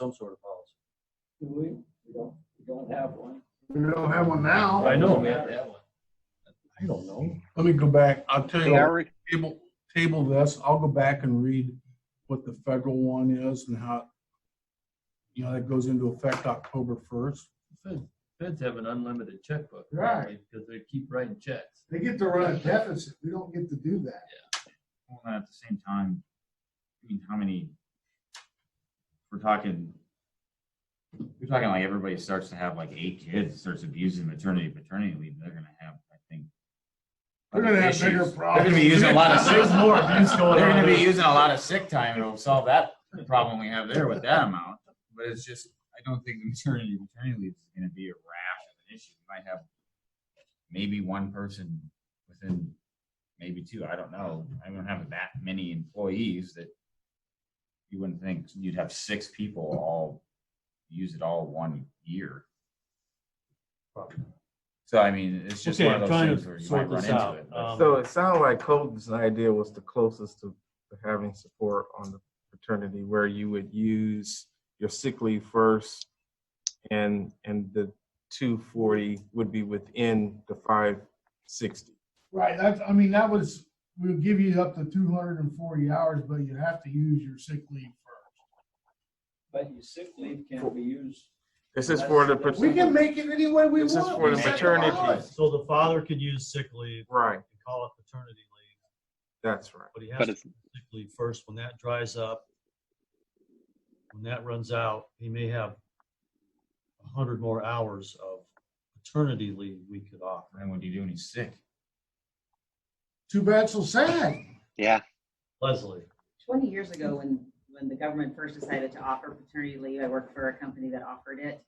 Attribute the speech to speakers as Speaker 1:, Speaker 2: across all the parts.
Speaker 1: some sort of policy.
Speaker 2: Do we? We don't, we don't have one.
Speaker 3: We don't have one now.
Speaker 1: I know, we have
Speaker 2: have
Speaker 1: to
Speaker 2: to
Speaker 1: have one. I don't know.
Speaker 3: Let me go back. I'll tell
Speaker 4: They
Speaker 3: you,
Speaker 4: are, re-
Speaker 3: table, table this. I'll go back and read what the federal one is and how, you know, that goes into effect October first.
Speaker 1: Feds, feds have an unlimited checkbook.
Speaker 5: Right.
Speaker 1: Because they keep writing checks.
Speaker 5: They get to run a deficit. We don't get to do that.
Speaker 6: Well, and at the same time, I mean, how many, we're talking, we're talking like everybody starts to have like eight kids, starts abusing maternity, paternity leave, they're gonna have, I think.
Speaker 5: They're gonna have bigger
Speaker 6: issues.
Speaker 5: problems.
Speaker 6: They're gonna be using a lot of sick,
Speaker 3: There's more abuse going
Speaker 6: they're gonna
Speaker 3: on.
Speaker 6: be using a lot of sick time, it'll solve that problem we have there with that amount. But it's just, I don't think the maternity, paternity leave is gonna be a rash of an issue, we might have maybe one person within maybe two. I don't know. I don't have that many employees that you wouldn't think you'd have six people all use it all one year. So I mean, it's just
Speaker 7: Okay,
Speaker 6: one
Speaker 7: I'm
Speaker 6: of those
Speaker 7: trying to
Speaker 6: things where you
Speaker 7: sort
Speaker 6: might run
Speaker 7: this
Speaker 6: into
Speaker 7: out.
Speaker 6: it.
Speaker 7: Um,
Speaker 8: So it sounded like Colton's idea was the closest to to having support on the fraternity, where you would use your sick leave first, and and the two forty would be within the five sixty.
Speaker 5: Right, that's, I mean, that was, we'll give you up to two hundred and forty hours, but you have to use your sick leave
Speaker 2: But your sick leave can be used.
Speaker 8: This is for the
Speaker 5: first. We can make it any way we want.
Speaker 8: This is
Speaker 5: We
Speaker 8: for the
Speaker 5: set
Speaker 8: maternity.
Speaker 5: laws.
Speaker 7: So the father could use sick leave
Speaker 8: right.
Speaker 7: and call it paternity leave,
Speaker 8: That's right.
Speaker 7: but he has
Speaker 4: but
Speaker 7: to
Speaker 4: it's,
Speaker 7: sick leave first. When that dries up, when that runs out, he may have a hundred more hours of paternity leave we could offer.
Speaker 6: And what do you do when he's sick?
Speaker 5: Too bad, so sad.
Speaker 4: yeah,
Speaker 7: Leslie,
Speaker 9: 20 years ago, when, when the government first decided to offer paternity leave, I worked for a company that offered it.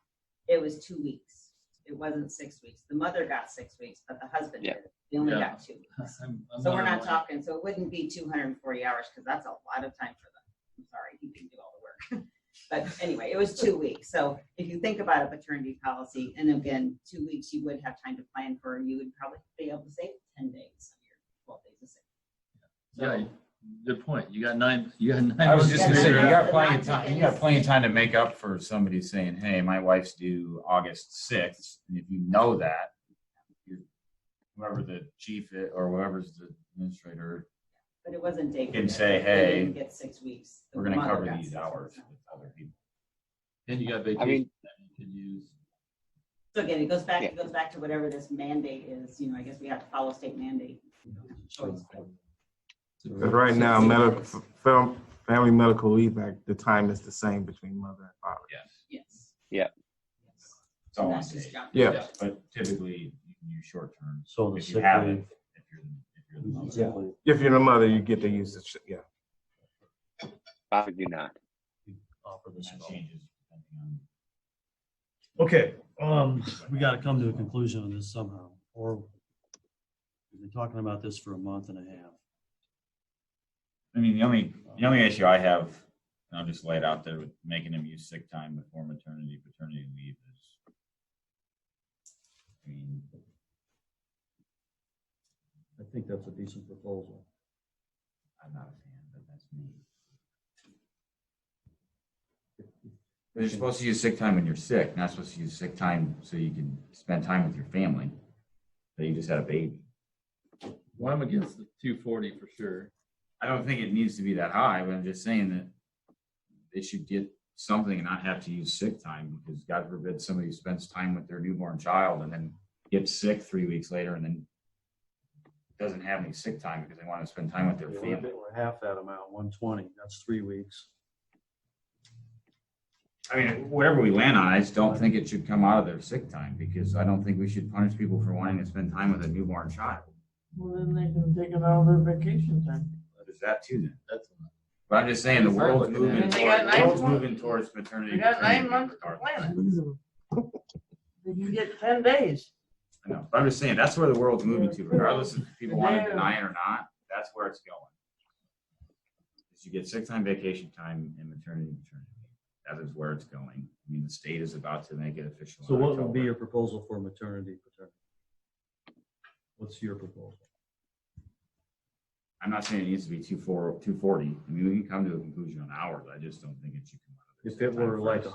Speaker 9: It was two weeks. It wasn't six weeks. The mother got six weeks, but the husband
Speaker 4: Yeah.
Speaker 9: didn't. They only
Speaker 1: Yeah.
Speaker 9: got two weeks. So we're not talking, so it wouldn't be 240 hours because that's a lot of time for them. I'm sorry, you can do all the work. But anyway, it was two weeks. So if you think about a paternity policy, and again, two weeks, you would have time to plan for, you would probably be able to save 10 days, or 12 days of sick.
Speaker 1: Yeah, good point. You got nine, you got nine.
Speaker 6: I was
Speaker 1: months
Speaker 6: just
Speaker 1: to
Speaker 6: gonna say, you
Speaker 1: figure it out.
Speaker 6: got plenty of time, you got plenty of time to make up for somebody saying, hey, my wife's due August sixth, and if you know that, you- whoever the chief i- or whoever's the administrator,
Speaker 9: But it wasn't day. for
Speaker 6: Can
Speaker 9: day.
Speaker 6: say,
Speaker 9: They
Speaker 6: "Hey,
Speaker 9: didn't Get six weeks. The
Speaker 6: we're gonna
Speaker 9: mother
Speaker 6: cover
Speaker 9: got
Speaker 6: these
Speaker 9: six
Speaker 6: hours
Speaker 9: weeks.
Speaker 6: with other people.
Speaker 1: And you got
Speaker 4: I
Speaker 1: vacation
Speaker 4: mean-
Speaker 1: that you could use.
Speaker 9: So again, it goes back,
Speaker 4: Yeah.
Speaker 9: it goes back to whatever this mandate is, you know, I guess we have to follow state mandate. We don't have a choice.
Speaker 8: Because right now, medical fam- family medical leave act, the time is the same between mother and father.
Speaker 6: Yes.
Speaker 9: Yes.
Speaker 4: Yeah.
Speaker 9: Yes.
Speaker 6: It's all on
Speaker 9: That's just
Speaker 6: day.
Speaker 9: junk.
Speaker 8: Yeah.
Speaker 6: But typically, you can use short term.
Speaker 7: so the
Speaker 6: If you
Speaker 7: sick
Speaker 6: have
Speaker 7: leave.
Speaker 6: it, if you're, if you're the mother.
Speaker 7: sick leave.
Speaker 8: If you're the mother, you get to use the yeah.
Speaker 4: I do not.
Speaker 7: Offer
Speaker 6: That
Speaker 7: this at all.
Speaker 6: changes depending on.
Speaker 7: Okay, um, we gotta come to a conclusion on this somehow, or we've been talking about this for a month and a half.
Speaker 6: I mean, the only, the only issue I have, and I'll just lay it out there with making them use sick time before maternity, paternity leave is. I mean,
Speaker 2: I think that's a decent proposal.
Speaker 6: I'm not a fan, but that's me. You're supposed to use sick time when you're sick, not supposed to use sick time so you can spend time with your family. So you just had a baby.
Speaker 1: Well, I'm against the two forty for sure.
Speaker 6: I don't think it needs to be that high, but I'm just saying that they should get something and not have to use sick time because God forbid somebody spends time with their newborn child and then gets sick three weeks later and then doesn't have any sick time because they want to spend time with their
Speaker 7: Yeah,
Speaker 6: family.
Speaker 7: We're we're half that amount, one twenty, that's three weeks.
Speaker 6: I mean, wherever we land on, it, I just don't think it should come out of their sick time because I don't think we should punish people for wanting to spend time with a newborn child.
Speaker 5: Well, then they can take it out of their vacation time.
Speaker 6: There's that too then.
Speaker 1: That's.
Speaker 6: But I'm just saying the
Speaker 5: That's
Speaker 6: world's
Speaker 5: what I'm looking
Speaker 6: moving,
Speaker 5: at.
Speaker 10: They got
Speaker 6: toward,
Speaker 10: nine
Speaker 6: world's
Speaker 10: months.
Speaker 6: moving towards maternity.
Speaker 10: We got nine
Speaker 6: paternity
Speaker 10: months to
Speaker 6: regardless.
Speaker 10: plan it. You can get ten days.
Speaker 6: I know, but I'm just saying, that's where the world's moving to, regardless if people want to deny it or not, that's where it's going. Is you get sick time, vacation time, and maternity, paternity. That is where it's going. I mean, the state is about to make it official.
Speaker 7: So
Speaker 6: in
Speaker 7: what would be
Speaker 6: October.
Speaker 7: your proposal for maternity, paternity? What's your proposal?
Speaker 6: I'm not saying it needs to be two four, two forty. I mean, we can come to a conclusion on hours. I just don't think it should come out of If it were like